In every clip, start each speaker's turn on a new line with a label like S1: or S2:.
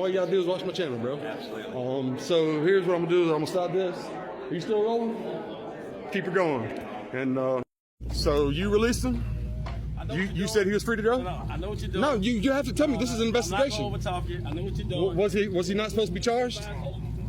S1: All you gotta do is watch my channel, bro. Absolutely. Um, so here's what I'm gonna do is I'm gonna stop this. Are you still rolling? Keep it going. And uh, so you released him?
S2: I know
S1: You
S2: what you're
S1: you said he
S2: doing.
S1: was free to go?
S2: No, no, I know what you're doing.
S1: No, you you have to tell me. This is an
S2: I'm
S1: investigation.
S2: not gonna overtalk you. I know what you're doing.
S1: W- Was he was he not supposed to be charged?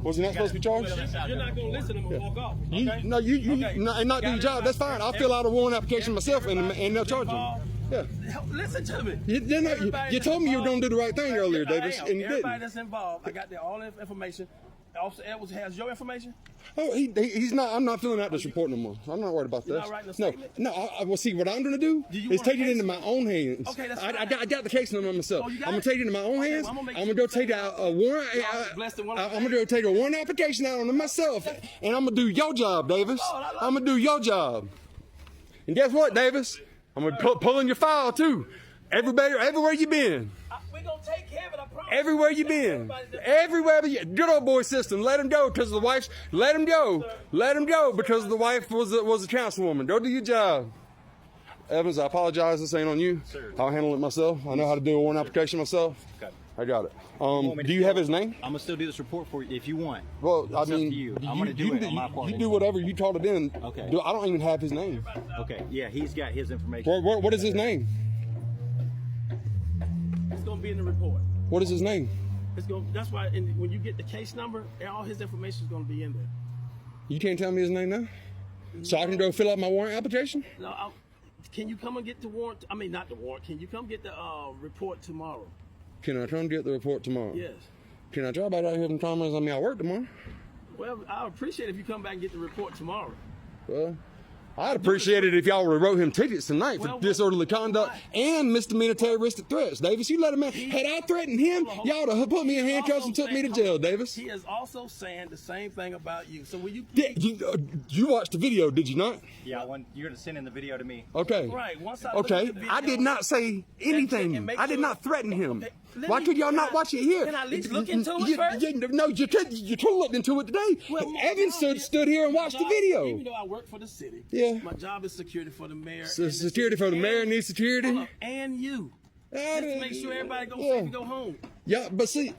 S1: Was he not supposed to be charged?
S2: You're not gonna listen. I'm gonna walk off.
S1: You,
S2: okay?
S1: no, you, you,
S2: Okay.
S1: no, and not do your job. That's fine. I'll fill out a warrant application myself, and, and they'll charge you. Yeah.
S2: Listen to me.
S1: You- they're not- you-
S2: Everybody
S1: you
S2: that's
S1: told me you were
S2: involved-
S1: gonna do the right thing earlier, Davis,
S2: I am.
S1: and you
S2: Everybody
S1: didn't.
S2: that's involved, I got the, all the information. Officer Edwards has your information.
S1: Oh, he, he, he's not. I'm not filling out this report no more. I'm not worried about
S2: You're
S1: this.
S2: not writing a
S1: no,
S2: statement?
S1: no. I, I, well, see, what I'm gonna do,
S2: Do you
S1: is
S2: want
S1: take
S2: a
S1: it into
S2: case?
S1: my own hands.
S2: Okay, that's
S1: I, I,
S2: fine.
S1: got, I got the case number myself.
S2: Oh, you got
S1: I'm gonna
S2: it?
S1: take it into my own
S2: Okay,
S1: hands.
S2: well, I'm gonna make
S1: I'm
S2: sure
S1: gonna go
S2: you
S1: take
S2: take
S1: out a warrant. uh,
S2: I was blessed and
S1: I,
S2: wonderful.
S1: am gonna go take a warrant application out on it myself, and I'm gonna do your job, Davis.
S2: Lord, Oh, I love
S1: I'm gonna do your job. And guess what, Davis? I'm gonna pull, pull in your file too. Everybody, everywhere you been.
S2: I, we're gonna take care of it. I promise.
S1: Everywhere you been, everywhere you, good old boy system. Let him go because the wife's. Let him go. Let him go because the wife was a, was a councilwoman. Go do your job. Evans, I apologize. This ain't on you. I'll handle it myself. I know how to do a warrant application myself.
S3: Okay.
S1: I got it. Um,
S3: want me to
S1: do you have
S3: go?
S1: his name?
S3: I'm gonna still do this report for you if you want.
S1: Well,
S3: It's
S1: I
S3: up to
S1: mean,
S3: you. I'm gonna do
S1: you,
S3: it on my
S1: you-
S3: part.
S1: you do whatever you taught it in.
S3: Okay.
S1: Do- I don't even have his name.
S3: Okay. Yeah, he's got his information.
S1: What, what, what is his name?
S2: It's gonna be in the report.
S1: What is his name?
S2: It's gonna. That's why. And when you get the case number, all his information is gonna be in there.
S1: You can't tell me his name now. So I can go fill out my warrant application.
S2: No, I, can you come and get the warrant? I mean, not the warrant. Can you come get the uh, report tomorrow?
S1: Can I come get the report tomorrow?
S2: Yes.
S1: Can I try about out here in Commerce? I mean, I work tomorrow.
S2: Well, I appreciate if you come back and get the report tomorrow.
S1: Well, I'd appreciate it if y'all would have wrote him tickets tonight for
S2: Well, what-
S1: disorderly conduct and misdemeanor terroristic threats. Davis, you let him in. Had I threatened him,
S2: Hold on,
S1: y'all
S2: hold
S1: would have put me in
S2: He
S1: handcuffs
S2: also
S1: and took me to
S2: saying-
S1: jail, Davis.
S2: He is also saying the same thing about you. So will you?
S1: Did, you, uh, you watched the video, did you not?
S3: Yeah, I want, you're gonna send in the video to me.
S1: Okay.
S2: Right. Once I look at
S1: Okay.
S2: the video-
S1: I did not say
S2: and
S1: anything.
S2: make
S1: I did
S2: sure-
S1: not threaten him.
S2: Okay, let
S1: Why
S2: me-
S1: could y'all
S2: can
S1: not
S2: I-
S1: watch it here?
S2: can I at least look
S1: You-
S2: into it
S1: you-
S2: first?
S1: you- no, you could. You could look into it today.
S2: Well, my
S1: Evan
S2: job
S1: stood,
S2: is-
S1: stood here and
S2: my
S1: watched the
S2: job-
S1: video.
S2: Even though I work for the city,
S1: Yeah.
S2: my job is security for the mayor.
S1: So
S2: and
S1: security for the
S2: and-
S1: mayor needs security?
S2: Hold up, and you. Just to make sure everybody go safe and go home.
S1: Yeah, but see,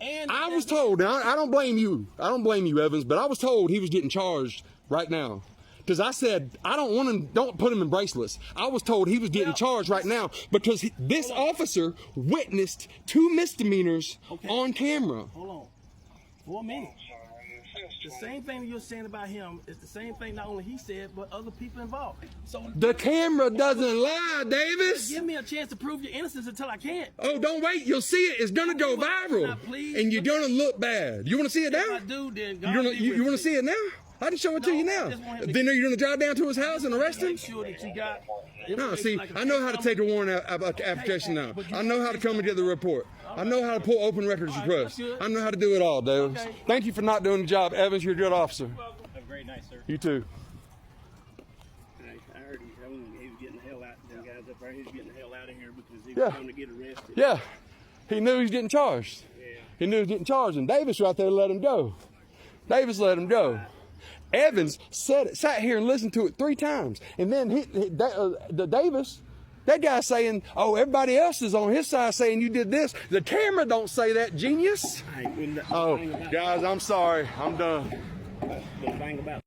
S2: And
S1: I was told, and I, I don't blame you. I don't blame you, Evans, but I was told he was getting charged right now. Because I said, I don't want him, don't put him in bracelets. I was told he was getting
S2: Well-
S1: charged right now because he, this officer witnessed two misdemeanors
S2: Okay.
S1: on camera.
S2: Hold on. For a minute. The same thing that you're saying about him is the same thing not only he said, but other people involved. So
S1: The camera doesn't lie, Davis.
S2: give me a chance to prove your innocence until I can.
S1: Oh, don't wait. You'll see it. It's going to go
S2: Well,
S1: viral.
S2: now, please.
S1: And you're going to look bad. You want to see it
S2: If
S1: now?
S2: I do, then God
S1: You, gonna,
S2: be
S1: you,
S2: with
S1: you want
S2: me.
S1: to see it now? I can show it to
S2: No,
S1: you
S2: I
S1: now.
S2: just want him to-
S1: Then are you going to drive down to his house and arrest him?
S2: Make sure that you got.
S1: No,
S2: information
S1: see,
S2: like a-
S1: I know how to take a warrant out, about the application now.
S2: but you-
S1: I know how to come and get the report. I know how to pull open records
S2: All right,
S1: requests.
S2: that's good.
S1: I know how to do it all, Davis.
S2: Okay.
S1: Thank you for not doing the job, Evans. You're a good officer.
S3: Have a great night, sir.
S1: You too.
S2: I heard he, that one, he was getting the hell out. Them guys up there, he was getting the hell out of here because he was
S1: Yeah.
S2: going to get arrested.
S1: Yeah, he knew he was getting charged. He knew he was getting charged, and Davis right there let him go. Davis let him go. Evans said it, sat here and listened to it three times, and then he, he- Da- uh, the Davis, that guy saying, "Oh, everybody else is on his side saying you did this." The camera don't say that, genius.
S2: Hey, and the
S1: Oh,
S2: thing about-
S1: guys, I'm sorry. I'm done.
S2: the thing about